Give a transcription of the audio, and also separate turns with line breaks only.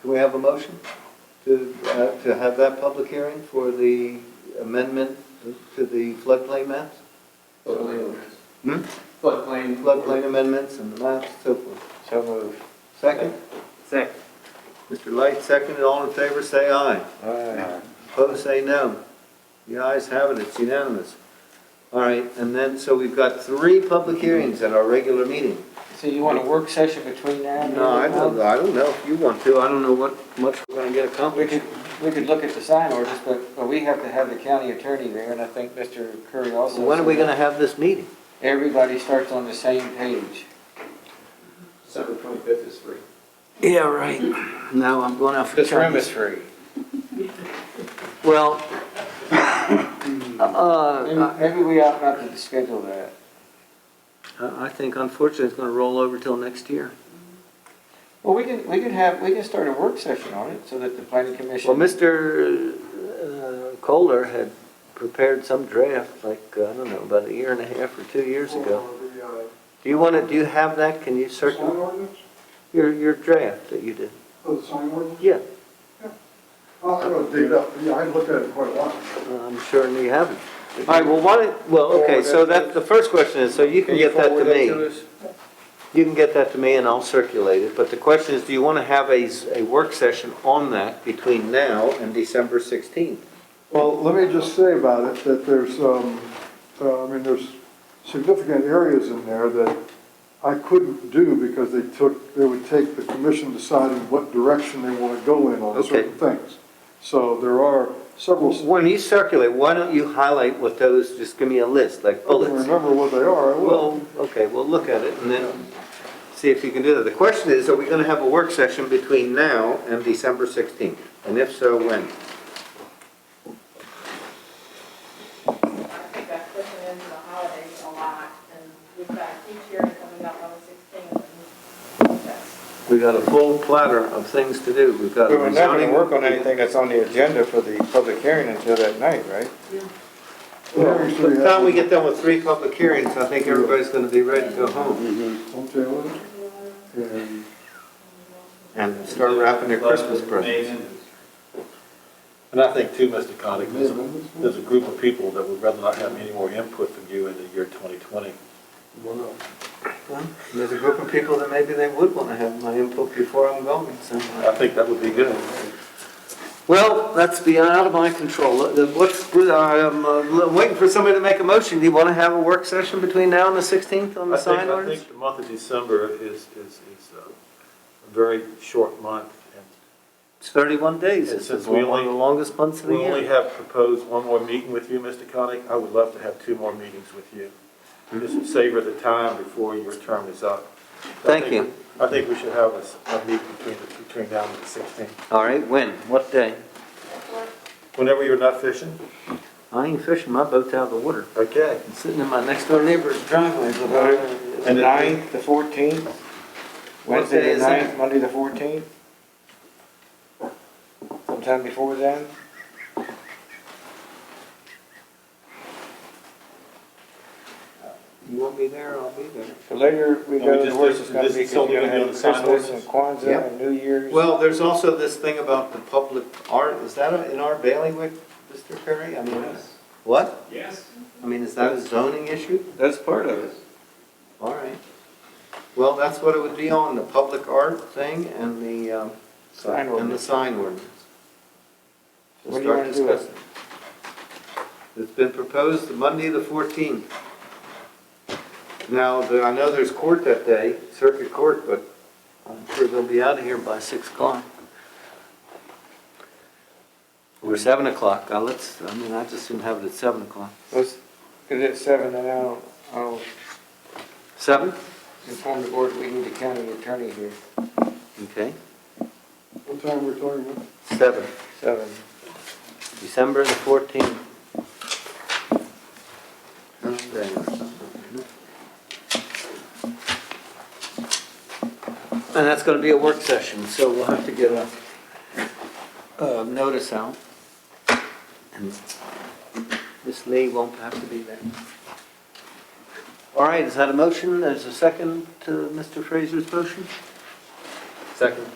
Can we have a motion to, uh, to have that public hearing for the amendment to the floodplain maps?
Floodplain,
Hmm?
floodplain.
Floodplain amendments and the maps, so forth.
So moved.
Second?
Second.
Mr. Light, second, and all in favor, say aye.
Aye.
Opposed, say no. The ayes have it, it's unanimous. All right, and then, so we've got three public hearings at our regular meeting.
So you want a work session between now and then?
No, I don't, I don't know if you want to, I don't know what much we're gonna get
We
accomplished.
could, we could look at the sign orders, but, but we have to have the county attorney there, and I think Mr. Curry also.
When are we
said
gonna have this meeting?
Everybody starts on the same page.
December twenty-fifth is free.
Yeah, right. Now I'm going out for
This room
Chinese.
is free.
Well,
Maybe,
uh,
maybe we ought not to schedule that.
I I think unfortunately it's gonna roll over till next year.
Well, we can, we can have, we can start a work session on it, so that the planning commission.
Well, Mr. uh, Kohler had prepared some draft, like, uh, I don't know, about a year and a half or two years ago. Do you want to, do you have that? Can you
uh, Sign
search
ordinance?
your, your draft that you did?
Oh, the sign ordinance?
Yeah,
I'll have to dig it up, yeah, I looked at it quite a lot.
I'm sure you haven't. All right, well, why, don't- well, okay, so that, the first question is, so you can get that to me. You can get that to me and I'll circulate it, but the question is, do you want to have a, s- a work session on that between now and December 16th?
Well, let me just say about it, that there's, um, uh, I mean, there's significant areas in there that I couldn't do because they took, they would take the commission deciding what direction they want to go in on
Okay.
certain things. So there are several, I
When you circulate, why don't you highlight what those, just give me a list, like
don't
bullets?
remember what they are, I will.
Well, okay, we'll look at it and then see if you can do that. The question is, are we going to have a work session between now and December 16th? And if so, when?
I think that pushing into the holidays a lot, and we've got each year coming up on the sixteenth, and that's,
We've got a full platter of things to do. We've got
We were not going
rezoning.
to work on anything that's on the agenda for the public hearing until that night, right?
Well, By the time we get done with three public hearings, I think everybody's going to be ready to go home
Home Taylor, and
and start wrapping their Christmas presents.
And I think too, Mr. Connick, there's, a-
Amendments?
there's a group of people that would rather not have any more input from you in the year 2020.
what else?
Well, There's a group of people that maybe they would want to have my input before I'm going somewhere.
I think that would be good.
Well, that's beyond out of my control. Uh, the- What's, I'm uh, waiting for somebody to make a motion. Do you want to have a work session between now and the 16th on the
I think,
sign
I
orders?
think the month of December is, is, is uh, a very short month. and
It's 31 days.
And
It's
since
one
we
of the
only-
longest months of the
We only
year.
have proposed one more meeting with you, Mr. Connick. I would love to have two more meetings with you. Just savor the time before your term is up. I
Mm-hmm. Thank
think-
you.
I think we should have a, s- a meeting between, the- between now and the 16th.
All right, when? What day?
that's what
Whenever you're not fishing,
I ain't fishing, my boat's out of the water.
okay.
It's sitting in my next door neighbor's driveway. for about-
The ninth, the fourteenth,
day
Wednesday
is
the
that?
ninth, Monday the fourteenth? Sometime before then?
You want me there, I'll be there.
So later we
And we
go to
just
the worst
do-
it's gonna
this
be,
is
'cause you're
only
gonna
gonna
have
be on the
Christmas and
sign
Yep.
Kwanzaa and New Year's.
Well, there's also this thing about the public art, is that in our bailiwick, Mr. Perry? I mean, what? Yes. I mean, is that a zoning issue?
That's part of it.
All right. Well, that's what it would be on, the public art thing and the, um,
Sign
and the
ordinance.
sign ordinance. We'll
What do you
start
wanna do?
discussing. It's been proposed Monday, the fourteenth. Now, the- I know there's court that day, circuit court, but I'm sure they'll be out of here by six o'clock. Or seven o'clock, Uh, let's, I mean, I just soon have it at seven o'clock.
Let's, cause it's seven and I'll, I'll
Seven?
inform the board we need a county attorney here.
Okay,
What time we're talking about?
seven.
Seven.
December the fourteenth. And that's gonna be a work session, so we'll have to get a, uh notice out. And Miss Lee won't have to be there. All right, is that a motion? There's a second to Mr. Fraser's motion?
Second.